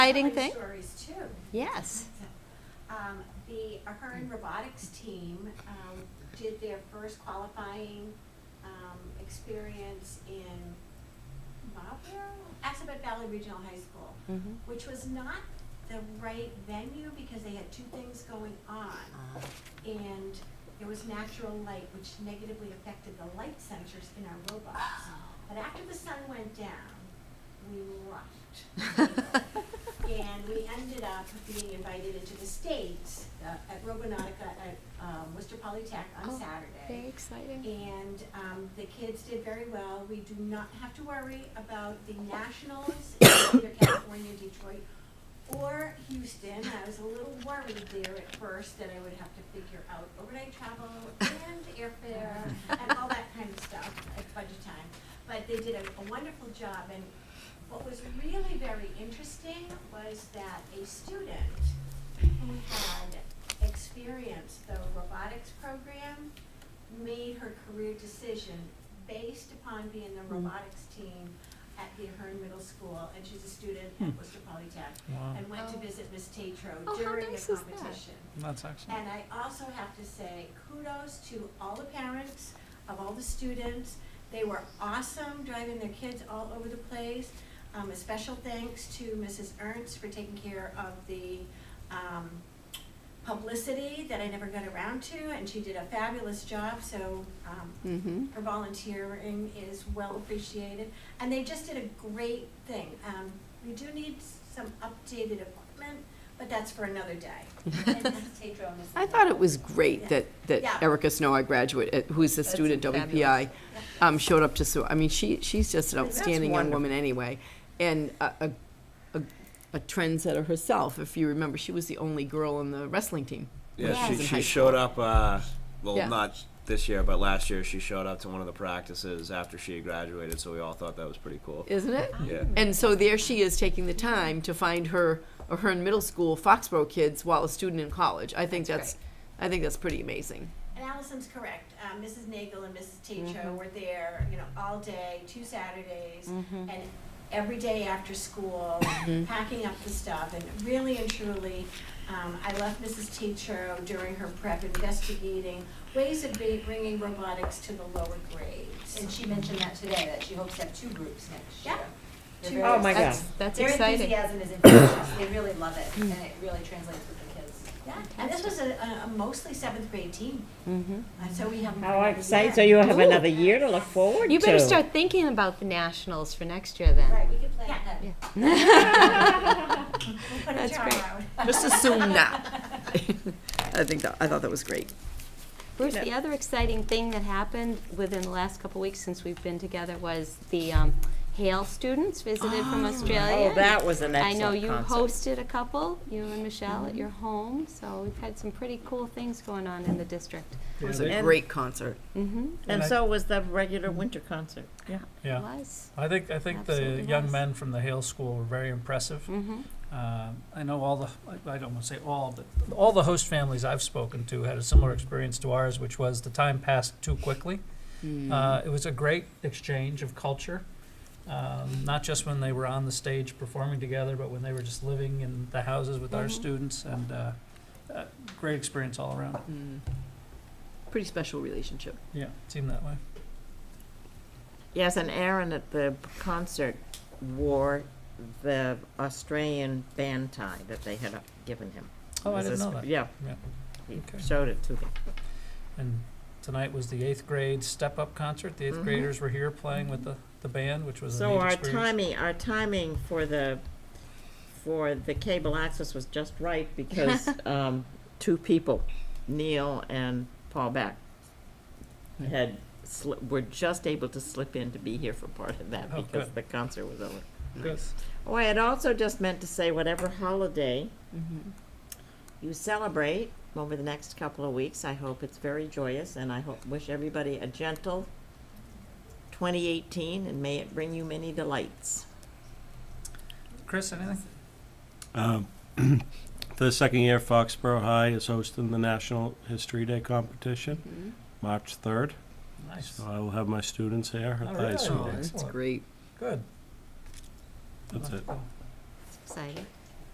exciting thing? Stories too. Yes. Um, the Ahern Robotics team, um, did their first qualifying, um, experience in Marlboro, Assabet Valley Regional High School, Mhm. which was not the right venue because they had two things going on. Ah. And there was natural light, which negatively affected the light sensors in our robots. Oh. But after the sun went down, we rocked. And we ended up being invited into the States uh, at Robonautica at um, Worcester Polytech on Oh, Saturday. Very exciting. And um, the kids did very well. We do not have to worry about the Nationals in either California, Detroit, or Houston. I was a little worried there at first that I would have to figure out overnight travel and airfare and all that kind of stuff at budget time. But they did a- a wonderful job, and what was really very interesting was that a student who had experienced the robotics program made her career decision based upon being the robotics team at the Ahern Middle School, and she's a student at Worcester Polytech, Wow, and went to Oh. visit Miss Oh, Tatro how during the nice is that? competition. that's excellent. And I also have to say kudos to all the parents of all the students. They were awesome driving their kids all over the place. Um, a special thanks to Mrs. Ernst for taking care of the, um, publicity that I never got around to, and she did a fabulous job, so, um, Mm-hmm. her volunteering is well appreciated, and they just did a great thing. Um, we do need some updated equipment, but that's for another day. And Mrs. Tatro and Mrs. I thought it Lawrence. was great that, Yeah. that Erica Snow, our graduate, uh, who's a That's student at WPI, um, showed up to, so, I mean, she, she's just an That's outstanding young wonderful. woman anyway. And a, a, a- a trendsetter herself, if you remember, she was the only girl on the wrestling team. when Yeah, she, was in high she showed up. Uh, well, Yeah. not this year, but last year she showed up to one of the practices after she had graduated. So we all thought that was pretty cool. school, Isn't Mm-hmm. it? Yeah. And so there she is taking the time to find her, or her in middle school Foxborough kids while a student in college. I think That's that's, I think that's pretty amazing. And Allison's correct. Um, Mrs. Nagel and Mrs. Mm-hmm. Tatro were there, you know, all day, two Saturdays, Mm-hmm. and every day after school, packing up the stuff. And really and truly, um, I left Mrs. Tatro during her prep investigating ways of ba- bringing robotics to the lower grades. And she mentioned that today, that she hopes to have two groups next year. Yeah. They're Two very Oh, my excited. God. That's, that's Their exciting. enthusiasm Mm-hmm. is infectious, they really love it, and it really translates with the kids. Yeah, and this was a, a mostly seventh grade team, Mm-hmm. Mhm. uh, Mm-hmm. so we have. How exciting, Oh, so you'll have Ooh. another year to look forward to. You better start thinking about the nationals for next year then. Right, we could plan Yeah. ahead. We'll put a That's jar great. out. Just assume now. I think that, I thought that was great. Bruce, Yeah. the other exciting thing that happened within the last couple weeks since we've been together was the um, Hale students visited from Australia. Oh, that was an I know excellent you hosted concept. a couple, you and Michelle Mm-hmm. at your home, so we've had some pretty cool things going on in the district. It was a And- great concert. Mm-hmm, And And I- so was the regular winter concert, yeah. Yeah, was. I think, I think the Absolutely young was. men from the Hale School were very impressive. Mm-hmm. Um, I know all the, I- I don't want to say all, but all the host families I've spoken to had a similar experience to ours, which was the time passed too quickly. Mm-hmm. Hmm. Uh, it was a great exchange of culture, um, not just when they were on the stage performing together, but when they were just living in the houses with our Mhm. students, and uh, uh, great experience all around. Mm. Pretty special relationship. Yeah, seemed that way. Yes, and Aaron at the concert wore the Australian band tie that they had uh, given him. Oh, I It was didn't a know sp- that. Yeah. Yeah. He Okay. showed it to them. And tonight was the eighth grade step up concert. The 8th Mhm. graders were here playing with the, the band, which was a So neat our experience. timing, our timing for the, for the cable access was just right because, um, two people, Neil and Paul Beck, had, sli- were just able to slip in to be here for part of that Oh, because good. the concert was over. Good. Oh, I had also just meant to say whatever holiday Mhm. you celebrate over the next couple of weeks, I hope it's very joyous and I hope, wish everybody a gentle twenty eighteen and may it bring you many delights. Chris, anything? Um, For the second year, Foxborough High is hosting the National History Day competition, Mm-hmm. Mhm. March 3rd. Nice. So I will have my students here at Oh, the high really? school. That's Excellent. great. Good. That's it. Exciting.